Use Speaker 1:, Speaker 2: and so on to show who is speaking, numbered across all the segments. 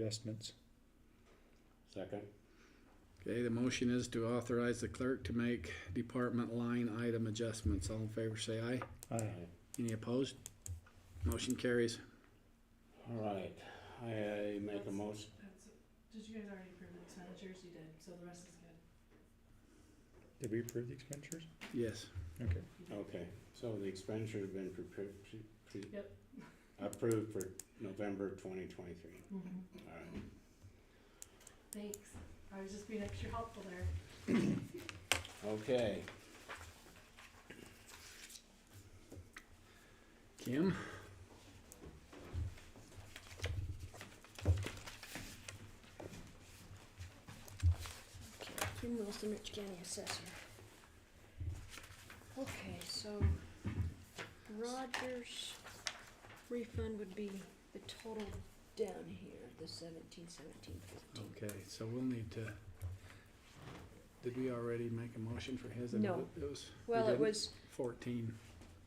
Speaker 1: adjustments.
Speaker 2: Second.
Speaker 3: Okay, the motion is to authorize the clerk to make department line item adjustments. All in favor, say aye.
Speaker 1: Aye.
Speaker 3: Any opposed? Motion carries.
Speaker 2: All right, I I make a
Speaker 4: That's-
Speaker 2: motion,
Speaker 4: That's, did you guys already approve the expenditures? You did, so the rest is good.
Speaker 1: Did we approve the expenditures?
Speaker 3: Yes.
Speaker 1: Okay.
Speaker 2: okay, so the expenditure have been prepared, pre- pre-
Speaker 4: Yep.
Speaker 2: approved for November twenty twenty-three, all right.
Speaker 4: Thanks. I was just being extra helpful there.
Speaker 2: Okay,
Speaker 3: Kim?
Speaker 5: Okay, Kim Wilson, Rich County Assessor. Okay, so Rogers refund would be the total down here, the seventeen, seventeen, fifteen.
Speaker 3: Okay, so we'll need to, did we already make a motion for his?
Speaker 5: No.
Speaker 3: It was. we
Speaker 5: Well, it
Speaker 3: didn't?
Speaker 5: was,
Speaker 3: Fourteen.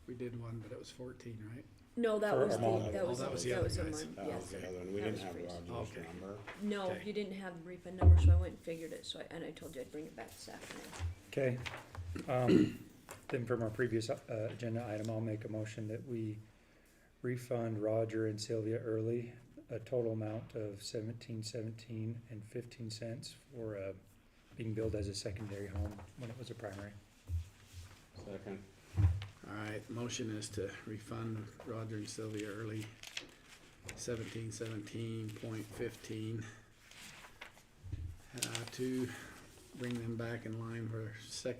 Speaker 3: We did one, but it was fourteen, right?
Speaker 5: no, that
Speaker 1: For
Speaker 5: was
Speaker 1: a
Speaker 5: the,
Speaker 1: month.
Speaker 5: that
Speaker 3: Oh,
Speaker 5: was,
Speaker 3: that
Speaker 5: that
Speaker 3: was
Speaker 5: was
Speaker 3: the
Speaker 5: a
Speaker 3: other
Speaker 5: month,
Speaker 3: guy's.
Speaker 5: yes.
Speaker 2: that was the other one, we
Speaker 5: that
Speaker 2: didn't
Speaker 5: was
Speaker 2: have
Speaker 5: freeze.
Speaker 2: Roger's
Speaker 3: Okay.
Speaker 2: number.
Speaker 5: No,
Speaker 3: Okay.
Speaker 5: you didn't have the refund number, so I went and figured it, so I, and I told you I'd bring it back this afternoon.
Speaker 1: Okay, um, then from our previous, uh, agenda item, I'll make a motion that we refund Roger and Sylvia early a total amount of seventeen seventeen and fifteen cents for, uh, being billed as a secondary home when it was a primary.
Speaker 2: Second,
Speaker 3: All right, motion is to refund Roger and Sylvia early seventeen seventeen point fifteen. Uh, to bring them back in line for sec,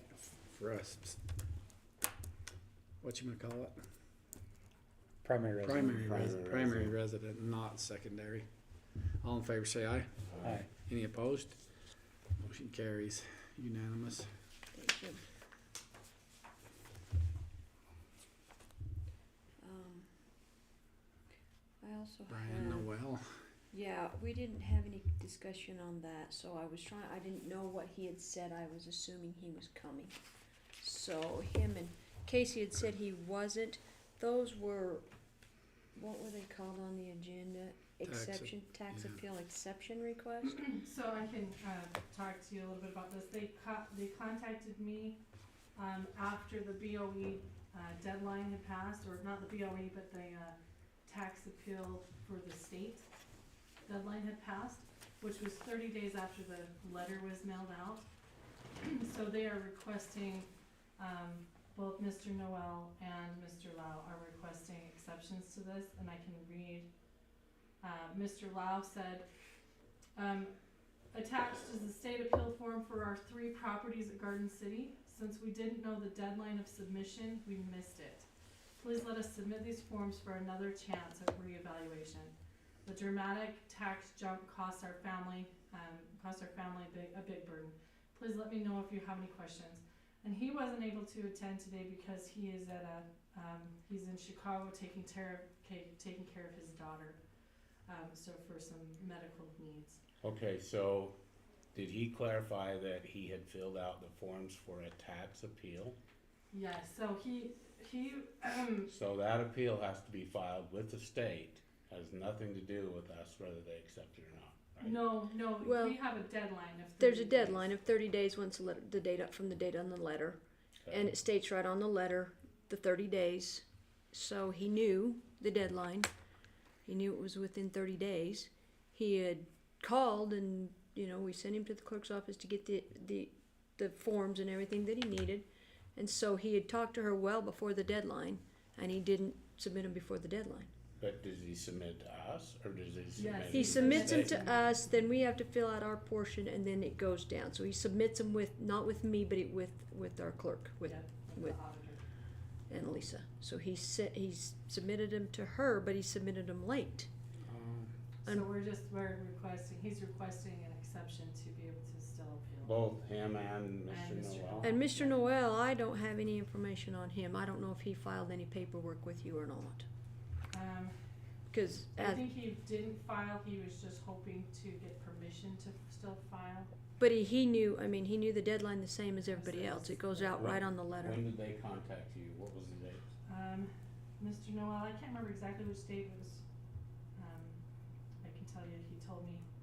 Speaker 3: for us. What you gonna call it?
Speaker 1: Primary residence.
Speaker 3: Primary, res-
Speaker 2: Primary
Speaker 3: primary
Speaker 2: resident.
Speaker 3: resident, not secondary. All in favor, say aye.
Speaker 2: aye,
Speaker 1: Aye.
Speaker 3: Any opposed? Motion carries unanimous.
Speaker 5: Thank you. Um, I also
Speaker 3: Brian
Speaker 5: have-
Speaker 3: Noel,
Speaker 5: Yeah, we didn't have any discussion on that, so I was trying, I didn't know what he had said, I was assuming he was coming. So him and Casey had said he wasn't, those were, what were they called on the agenda?
Speaker 3: Tax ap-
Speaker 5: Exception, tax
Speaker 3: yeah.
Speaker 5: appeal exception request?
Speaker 4: So I can, uh, talk to you a little bit about this. They co- they contacted me, um, after the BOE, uh, deadline had passed, or not the BOE, but the, uh, tax appeal for the state deadline had passed, which was thirty days after the letter was mailed out. So they are requesting, um, both Mr. Noel and Mr. Lau are requesting exceptions to this, and I can read. Uh, Mr. Lau said, um, attached is the state appeal form for our three properties at Garden City. Since we didn't know the deadline of submission, we missed it. Please let us submit these forms for another chance at reevaluation. The dramatic tax jump costs our family, um, costs our family a big, a big burden. Please let me know if you have any questions. And he wasn't able to attend today because he is at a, um, he's in Chicago taking care of, ca- taking care of his daughter. Um, so for some medical needs.
Speaker 2: okay, so, did he clarify that he had filled out the forms for a tax appeal?
Speaker 4: Yeah, so he, he, um,
Speaker 5: Mm-hmm.
Speaker 2: So that appeal has to be filed with the state, has nothing to do with us whether they accept it or not, right?
Speaker 4: no, no,
Speaker 5: Well,
Speaker 4: we have a deadline of.
Speaker 5: There's a
Speaker 4: 30 days.
Speaker 5: deadline of thirty days once the letter, the date up from the date on the letter.
Speaker 2: Okay.
Speaker 5: And it states right on the letter, the thirty days, so he knew the deadline. He knew it was within thirty days. He had called and, you know, we sent him to the clerk's office to get the, the, the forms and everything that he needed. And so he had talked to her well before the deadline, and he didn't submit them before the deadline.
Speaker 2: But does he submit to us, or does he submit?
Speaker 4: Yes.
Speaker 2: it
Speaker 5: He
Speaker 2: to the
Speaker 5: submits them
Speaker 2: state?
Speaker 5: to us, then we have to fill out our portion, and then it goes down. So he submits them with, not with me, but it with, with our clerk, with
Speaker 4: Yep,
Speaker 5: with-
Speaker 4: the auditor.
Speaker 5: and Lisa. So he said he's submitted them to her, but he submitted them late.
Speaker 3: um,
Speaker 4: So we're just, we're requesting, he's requesting an exception to be able to still appeal.
Speaker 2: Both him and
Speaker 4: And
Speaker 2: Mr.
Speaker 4: Mr.
Speaker 2: Noel?
Speaker 5: And Mr. Noel, I don't have any information on him. I don't know if he filed any paperwork with you or not.
Speaker 4: Um,
Speaker 5: Because
Speaker 4: I think he didn't file, he was just hoping to get permission to still file.
Speaker 5: but he, he knew. I mean, he knew the deadline the same as everybody else. It goes out right on the letter.
Speaker 2: When did they contact you? What was the date?
Speaker 4: Um, Mr. Noel, I can't remember exactly which date it was,